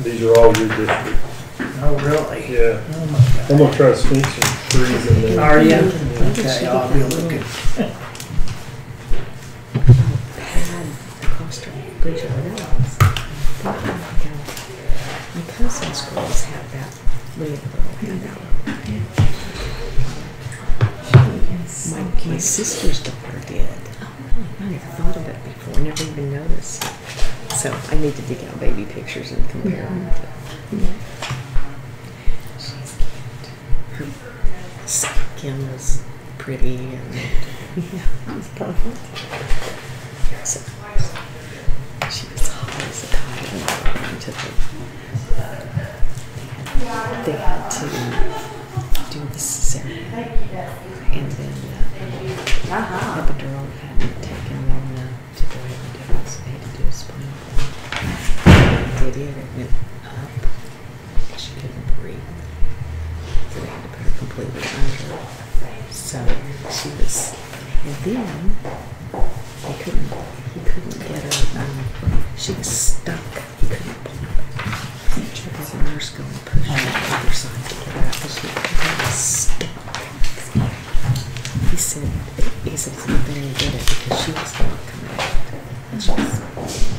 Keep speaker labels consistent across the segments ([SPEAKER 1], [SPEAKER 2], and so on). [SPEAKER 1] These are all your district.
[SPEAKER 2] Oh, really?
[SPEAKER 1] Yeah.
[SPEAKER 2] Oh my
[SPEAKER 1] I'm gonna try to sneak some trees in
[SPEAKER 2] God.
[SPEAKER 1] there.
[SPEAKER 2] Are you? Okay, I'll be looking.
[SPEAKER 3] Bridge of Rose. Oh my God. My cousin's girls have that. Maria Pearl had that one. My, my sister's daughter did. I never thought of it before, never even noticed. So I need to dig out baby pictures and compare them to. She's cute. Her skin was pretty and yeah, it was perfect. So, uh, she was uh, always a cotton to uh, the. They had to do the cesarean and then uh, epidural hadn't taken long enough to go ahead and do it, so they had to do a spinal cord. They did, it went up because she couldn't breathe. So they had to put her completely under. So she was, and then he couldn't. He couldn't get her. Um, she was stuck. He couldn't pull her. There was a nurse going to push her to the other side to get her out, but she was stuck. He said, "He said it's not going to get it because she was not coming out. And she was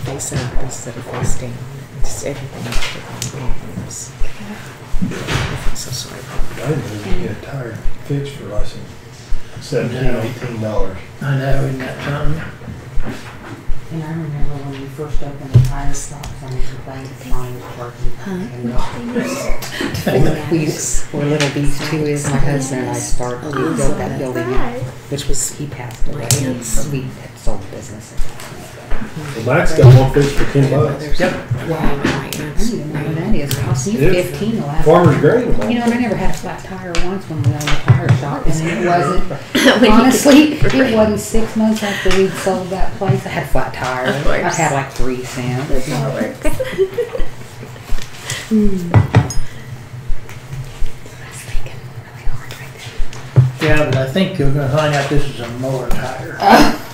[SPEAKER 3] face up instead of face down. Just everything was taken wrong. It was- I felt so sorry for her.
[SPEAKER 1] I didn't even get a tire fixed for like some seventeen, eighteen dollars.
[SPEAKER 2] I know, isn't that something?
[SPEAKER 4] And I remember when we first opened the tire shop, and we complained that mine was working.
[SPEAKER 3] Four weeks.
[SPEAKER 4] Where little B2 is, my husband and I started,
[SPEAKER 3] Oh,
[SPEAKER 4] we built that building up, which was, he passed away.
[SPEAKER 3] Yes.
[SPEAKER 4] We had sold the business.
[SPEAKER 1] Well, Max got one fixed for ten bucks.
[SPEAKER 3] Yep. Wow, my
[SPEAKER 4] I
[SPEAKER 3] aunt's
[SPEAKER 4] don't even know where that is, cost me
[SPEAKER 1] It's
[SPEAKER 4] fifteen the last.
[SPEAKER 1] Farmer's grain.
[SPEAKER 4] You know, and I never had a flat tire once when we owned the tire shop, and it wasn't,
[SPEAKER 3] When he-
[SPEAKER 4] honestly, it wasn't six months after we'd sold that place, I had a flat tire.
[SPEAKER 3] Of course.
[SPEAKER 4] I had like three cents.
[SPEAKER 3] Hmm.
[SPEAKER 2] Yeah, but I think you're gonna find out this is a mower tire.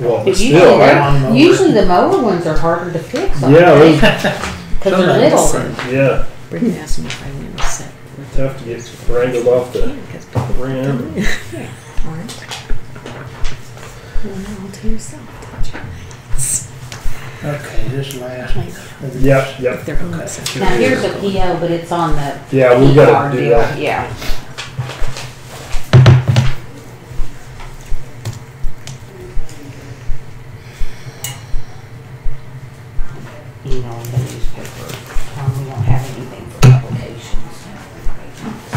[SPEAKER 1] Well, but
[SPEAKER 4] But
[SPEAKER 1] still,
[SPEAKER 4] Uh, usually,
[SPEAKER 1] I,
[SPEAKER 2] I-
[SPEAKER 4] they're- usually the mower ones are harder to fix. aren't
[SPEAKER 1] yeah,
[SPEAKER 4] they?
[SPEAKER 1] those,
[SPEAKER 4] Cause they're little.
[SPEAKER 1] yeah,
[SPEAKER 3] Brittany asked me if I went to set. with
[SPEAKER 1] tough to get wrangled off the rim.
[SPEAKER 3] Aren't. Well, all to yourself, don't you?
[SPEAKER 2] Okay, this last.
[SPEAKER 1] Yep, yep.
[SPEAKER 3] They're all set.
[SPEAKER 4] Now, here's a PO, but it's on the.
[SPEAKER 1] Yeah, we gotta
[SPEAKER 4] PR
[SPEAKER 1] do
[SPEAKER 4] deal.
[SPEAKER 1] that.
[SPEAKER 4] Yeah. You know, in the newspaper, um, we don't have anything for publications.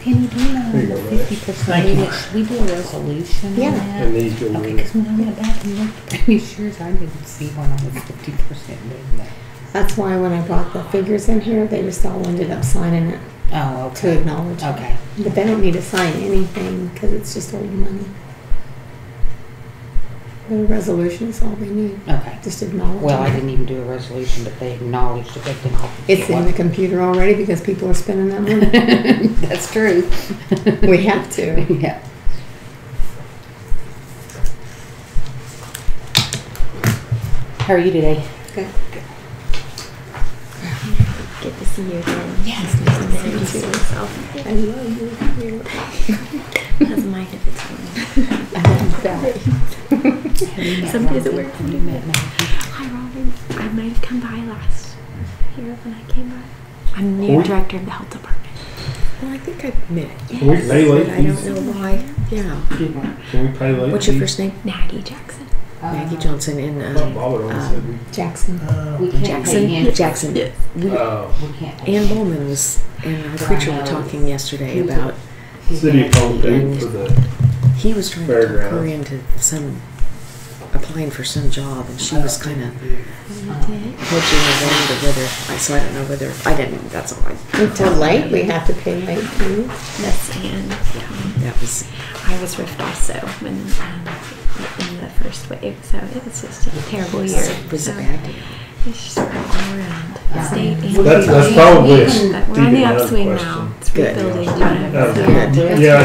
[SPEAKER 4] Penny, do you know
[SPEAKER 1] There you go, Renee.
[SPEAKER 4] fifty percent,
[SPEAKER 2] Thank
[SPEAKER 4] we
[SPEAKER 2] you.
[SPEAKER 4] do- should we do a resolution on
[SPEAKER 3] Yeah.
[SPEAKER 4] that?
[SPEAKER 1] And these go
[SPEAKER 4] Okay,
[SPEAKER 1] in.
[SPEAKER 4] because when I went back and looked at these years, I didn't see one on the fifty percent movement.
[SPEAKER 3] That's why when I brought the figures in here, they just all ended up signing it
[SPEAKER 4] Oh,
[SPEAKER 3] to acknowledge. it.
[SPEAKER 4] Okay.
[SPEAKER 3] But they don't need to sign anything because it's just old money. The resolution is all they need,
[SPEAKER 4] Okay.
[SPEAKER 3] just acknowledge.
[SPEAKER 4] Well, I
[SPEAKER 3] it.
[SPEAKER 4] didn't even do a resolution, but they acknowledged that they did not.
[SPEAKER 3] It's in the computer already because people are spending that money.
[SPEAKER 4] That's true.
[SPEAKER 3] We have to.
[SPEAKER 4] Yeah. How are you today?
[SPEAKER 3] Good. Good to see you again. Yes. nice to see you myself. I love you.
[SPEAKER 5] Doesn't mind if it's me. Some days it works, some
[SPEAKER 4] You met me.
[SPEAKER 5] Hi, Robin. I might have come by last year when I came by. I'm new
[SPEAKER 1] Cool.
[SPEAKER 5] director of the health department.
[SPEAKER 3] Well, I think I've met you.
[SPEAKER 1] Can we pay
[SPEAKER 3] but
[SPEAKER 1] late
[SPEAKER 3] I don't
[SPEAKER 1] fees?
[SPEAKER 3] know why. Yeah.
[SPEAKER 1] Can we pay late fees?
[SPEAKER 3] What's your first name?
[SPEAKER 5] Maggie Jackson.
[SPEAKER 3] Maggie Johnson and
[SPEAKER 1] Bob
[SPEAKER 3] uh,
[SPEAKER 1] Bollard always said we-
[SPEAKER 3] Jackson.
[SPEAKER 2] Uh,
[SPEAKER 4] We can't
[SPEAKER 3] Jackson.
[SPEAKER 4] pay in.
[SPEAKER 3] Jackson. We,
[SPEAKER 1] Uh,
[SPEAKER 4] We can't. pay
[SPEAKER 3] Ann
[SPEAKER 4] in.
[SPEAKER 3] Bowman was and our preacher were talking yesterday about
[SPEAKER 4] He's
[SPEAKER 1] City
[SPEAKER 4] gonna
[SPEAKER 1] of Palm
[SPEAKER 4] pay in.
[SPEAKER 1] Date for the,
[SPEAKER 3] he was trying to talk her
[SPEAKER 1] Fairgrounds.
[SPEAKER 3] into some applying for some job and she was kind of hedging around or whether I so I don't know whether I didn't that's all I
[SPEAKER 6] Until late, we have to pay late fees.
[SPEAKER 5] Miss Ann. Um,
[SPEAKER 3] that was
[SPEAKER 5] I was ripped off so when um, in the first wave, so it was just a terrible year.
[SPEAKER 3] it was a
[SPEAKER 5] So
[SPEAKER 3] bad deal.
[SPEAKER 5] It's just all around. the State and
[SPEAKER 1] that's, that's probably a
[SPEAKER 5] But
[SPEAKER 1] Stevie
[SPEAKER 5] we're on the
[SPEAKER 1] Wonder
[SPEAKER 5] upswing
[SPEAKER 1] question.
[SPEAKER 5] now. It's
[SPEAKER 3] Good.
[SPEAKER 5] rebuilding. you know,
[SPEAKER 1] Uh,
[SPEAKER 5] so-
[SPEAKER 1] Yeah,